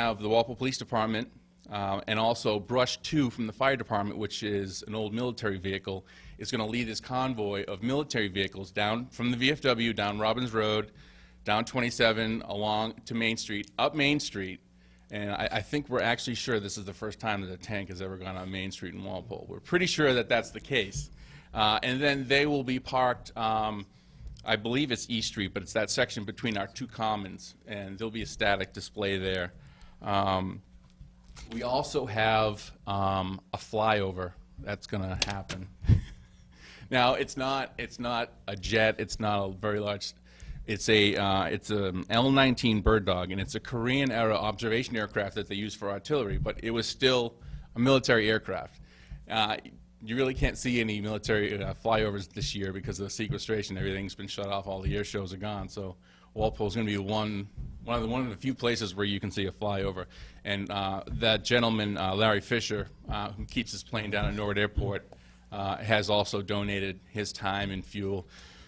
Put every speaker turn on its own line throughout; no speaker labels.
have the Walpole Police Department uh, and also Brush 2 from the Fire Department, which is an old military vehicle, is going to lead this convoy of military vehicles down from the VFW, down Robbins Road, down 27, along to Main Street, up Main Street. And I, I think we're actually sure this is the first time that a tank has ever gone on Main Street in Walpole. We're pretty sure that that's the case. Uh, And then they will be parked um, I believe it's East Street, but it's that section between our two commons, and there'll be a static display there. Um, We also have um, a flyover that's going to happen. Now, it's not, it's not a jet, it's not a very large, it's a, uh, it's a L-19 Bird Dog, and it's a Korean-era observation aircraft that they use for artillery, but it was still a military aircraft. Uh, You really can't see any military uh, flyovers this year because of the sequestration, everything's been shut off, all the air shows are gone, so Walpole's gonna be one, one of the, one of the few places where you can see a flyover. And uh, that gentleman, uh, Larry Fisher, uh, who keeps his plane down at Norwood Airport, uh, has also donated his time and fuel.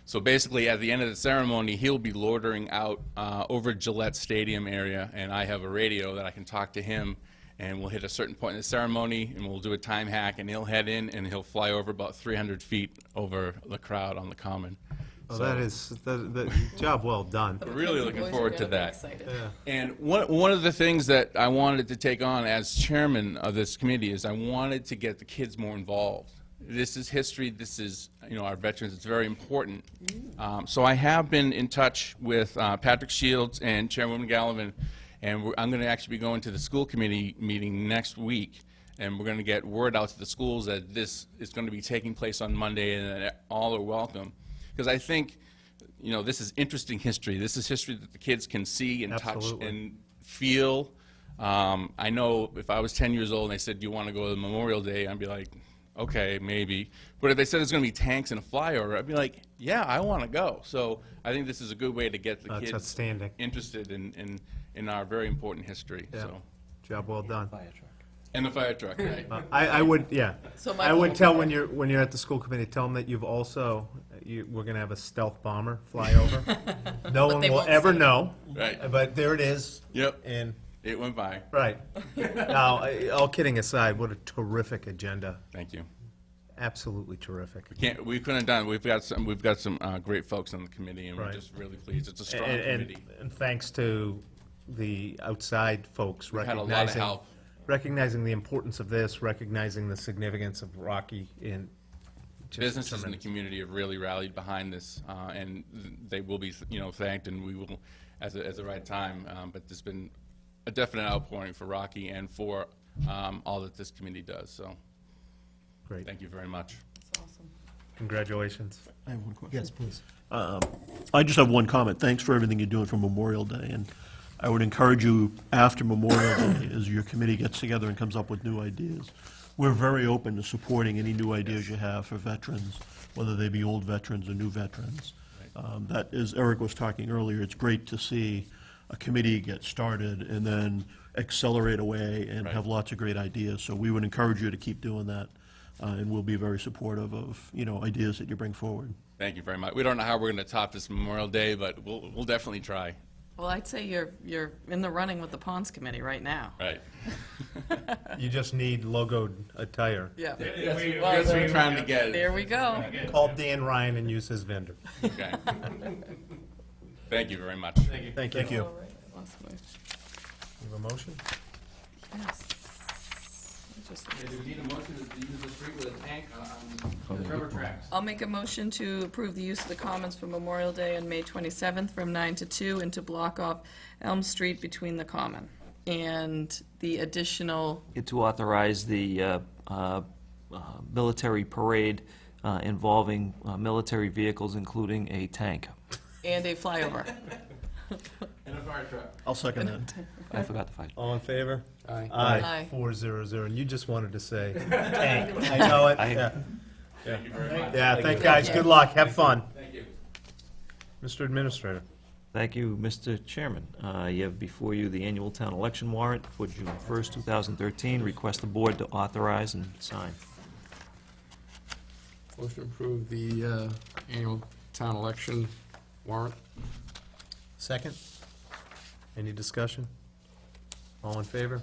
So basically, at the end of the ceremony, he'll be loitering out uh, over Gillette Stadium area, and I have a radio that I can talk to him, and we'll hit a certain point in the ceremony, and we'll do a time hack, and he'll head in, and he'll fly over about 300 feet over the crowd on the common.
Oh, that is, that, that, job well done.
Really
The
looking
boys are
forward to
gonna be
that.
excited.
Yeah.
And one, one of the things that I wanted to take on as chairman of this committee is I wanted to get the kids more involved. This is history, this is, you know, our veterans, it's very important. Um, so I have been in touch with uh, Patrick Shields and Chairwoman Gallivan, and we're- I'm going to actually be going to the school committee meeting next week, and we're going to get word out to the schools that this is going to be taking place on Monday and that all are welcome. Because I think, you know, this is interesting history. This is history that the kids can see and touch
Absolutely.
and feel. Um, I know if I was 10 years old and they said, "Do you want to go to Memorial Day?" I'd be like, "Okay, maybe." But if they said there's going to be tanks and a flyover, I'd be like, "Yeah, I want to go." So I think this is a good way to get the
That's
kids
outstanding.
interested in, in in our very important history.
Yeah.
So
Job well done.
and the fire truck, right?
I, I would, yeah.
So
I
Michael
would
will
tell
be
when
there.
you're, when you're at the school committee, tell them that you've also, you, we're gonna have a stealth bomber fly over. No one
they
will
won't
ever
see it.
know,
right.
but there it is.
Yep.
And,
It went by.
right. Now, I- all kidding aside, what a terrific agenda.
Thank you.
Absolutely terrific.
Can't, we couldn't have done. it. We've got some. We've got some uh, great folks on the committee, and we're
Right.
just really pleased. It's a strong
And, and,
committee.
and thanks to the outside folks
had a lot
recognizing.
of help.
Recognizing the importance of this, recognizing the significance of Rocky in. just
businesses in the
tremendous.
community have really rallied behind this, uh, and th- they will be, you know, thanked, and we will, as, a- at the right time, um, but there's been a definite outpouring for Rocky and for um, all that this community does, so
Great,
thank you very much.
That's awesome.
congratulations.
I have one question. Um,
Yes, please.
I just have one comment. Thanks for everything you're doing for Memorial Day, and I would encourage you, after Memorial Day, as your committee gets together and comes up with new ideas, we're very open to supporting any new ideas you have for veterans, whether they be old veterans or new veterans. Um, That, as Eric was talking earlier, it's great to see a committee get started and then accelerate away and have lots of great ideas. So we would encourage you to keep doing that, uh, and we'll be very supportive of, you know, ideas that you bring forward.
Thank you very much. We don't know how we're going to top this Memorial Day, but we'll, we'll definitely try.
Well, I'd say you're, you're in the running with the Ponds Committee right now.
Right.
You just need logoed attire.
Yeah.
That's what we're
Well,
trying to
There
get,
we go.
Call Dan Ryan and use his vendor.
okay. Thank you very much.
Thank you. Thank
All right, I lost my-
have a motion?
yes. I just- I'll make a motion to approve the use of the Commons for Memorial Day on May 27th from 9 to 2 and to block off Elm Street between the Common and the additional,
It to authorize the uh, uh, uh, military parade uh, involving uh, military vehicles, including a tank.
and a flyover.
And a fire truck.
I'll second that.
I forgot the fire.
All in favor? Aye.
Aye.
Four zero zero, and you just wanted to say, tank. I know it,
Aye.
yeah.
Thank you very much.
Yeah, thank guys, good luck, have fun.
Thank you.
Mr. Administrator.
Thank you, Mr. Chairman. Uh, You have before you the annual town election warrant for June 1st, 2013. Request the board to authorize and sign.
Motion to approve the uh, annual town election warrant.
Second? Any discussion? All in favor?